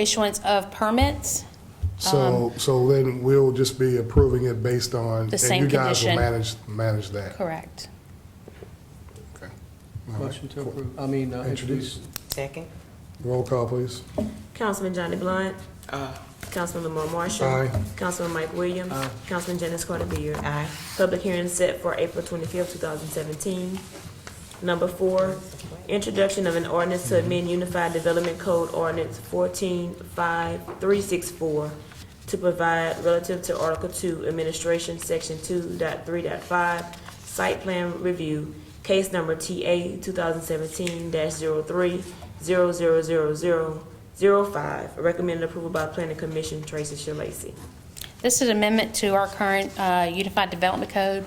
issuance of permits. So, so then we'll just be approving it based on. Um, The same And you guys will condition. manage, manage that. Correct. Okay. Motion to approve, I mean, uh, Introduce. introduce. Second. Roll call, please. Councilman Johnny Blunt. Aye. Councilman Lamar Marshall. Aye. Councilman Mike Williams. Aye. Councilman Janice Carter Beard. Aye. Public hearing set for April twenty-fifth, two thousand seventeen. Number four, introduction of an ordinance to amend Unified Development Code Ordinance fourteen five three six four to provide relative to Article Two, Administration, Section two dot three dot five, Site Plan Review, case number TA two thousand seventeen 3 zero three zero zero zero zero zero five. Recommended approval by Planning Commission, Tracy Shalacy. This is an amendment to our current uh, Unified Development Code.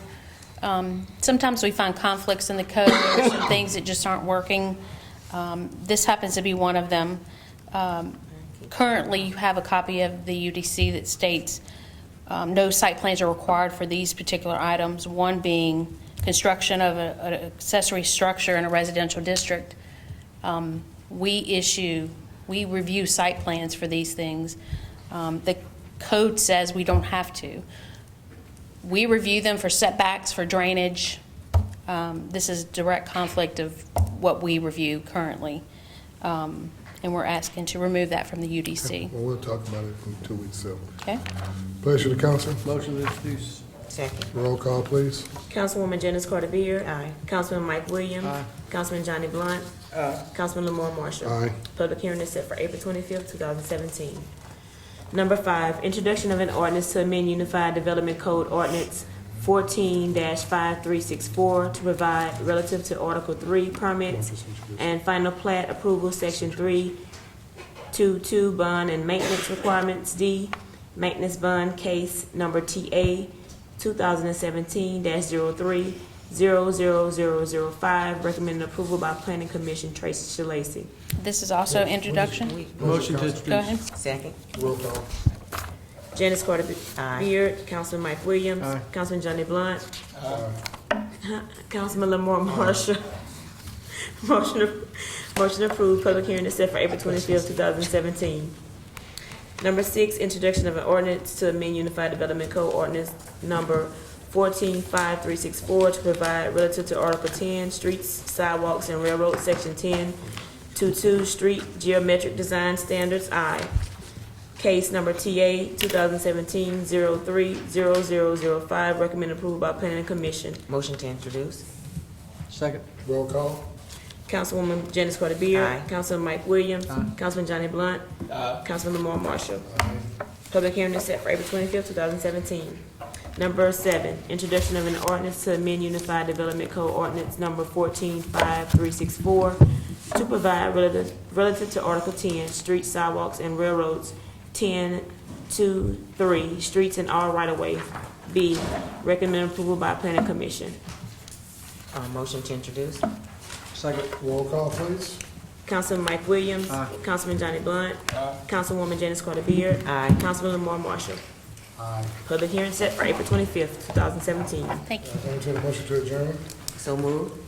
Um, Sometimes we find conflicts in the code, There are some things that just aren't working. Um, This happens to be one of them. Um, Currently, you have a copy of the UDC that states um, no site plans are required for these particular items, one being construction of a- an accessory structure in a residential district. Um, We issue, we review site plans for these things. Um, The code says we don't have to. We review them for setbacks, for drainage. Um, This is direct conflict of what we review currently. Um, And we're asking to remove that from the UDC, Well, we'll talk about it in two weeks, so. okay? Pleasure to council. Motion to introduce. Second. Roll call, please. Councilwoman Janice Carter Beard. Aye. Councilman Mike Williams. Aye. Councilman Johnny Blunt. Councilman Lamar Marshall. Aye. Public hearing is set for April twenty-fifth, two thousand seventeen. Number five, introduction of an ordinance to amend Unified Development Code Ordinance fourteen five three six four to provide relative to Article Three permits and final plat approval, Section three, two, two, bond and maintenance requirements, D, maintenance bond case number TA two thousand and seventeen 3 zero three zero zero zero zero five, recommended approval by Planning Commission, Tracy Shalacy. This is also introduction. Motion to Go ahead. introduce. Second. Roll call. Janice Carter Aye. Beard, Councilman Mike Williams, Aye. Councilman Johnny Blunt, Councilman Lamar Marshall. Motion, ap- motion approved, public hearing is set for April twenty-fifth, two thousand seventeen. Number six, introduction of an ordinance to amend Unified Development Code Ordinance Number fourteen five three six four to provide relative to Article ten, streets, sidewalks, and railroads, Section ten, two-two, street geometric design standards, I. Case number TA 2017-030005, recommended approval by Planning Commission. Motion to introduce. Second. Roll call. Councilwoman Janice Carter Beard. Aye. Councilman Mike Williams. Aye. Councilman Johnny Blunt. Councilman Lamar Marshall. Public hearing is set for April twenty-fifth, two thousand seventeen. Number seven, introduction of an ordinance to amend Unified Development Code Ordinance Number fourteen five three six four to provide relative, relative to Article ten, streets, sidewalks, and railroads, ten, two, three, streets and all right-of-way. B, recommend approval by Planning Commission. Uh, motion to introduce. Second. Roll call, please. Councilman Mike Williams. Aye. Councilman Johnny Blunt. Councilwoman Janice Carter Beard. Aye. Councilman Lamar Marshall. Aye. Public hearing set for April twenty-fifth, two thousand seventeen. Thank you. Entertain a motion to adjourn. So moved.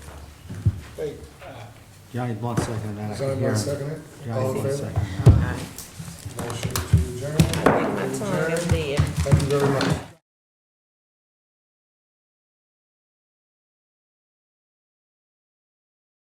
Johnny Blunt seconded that. I could Somebody hear him. second it? Johnny All in Blunt favor? seconded. Aye. Motion to adjourn. Take my Adjourn. time, I'm dead. Thank you very much.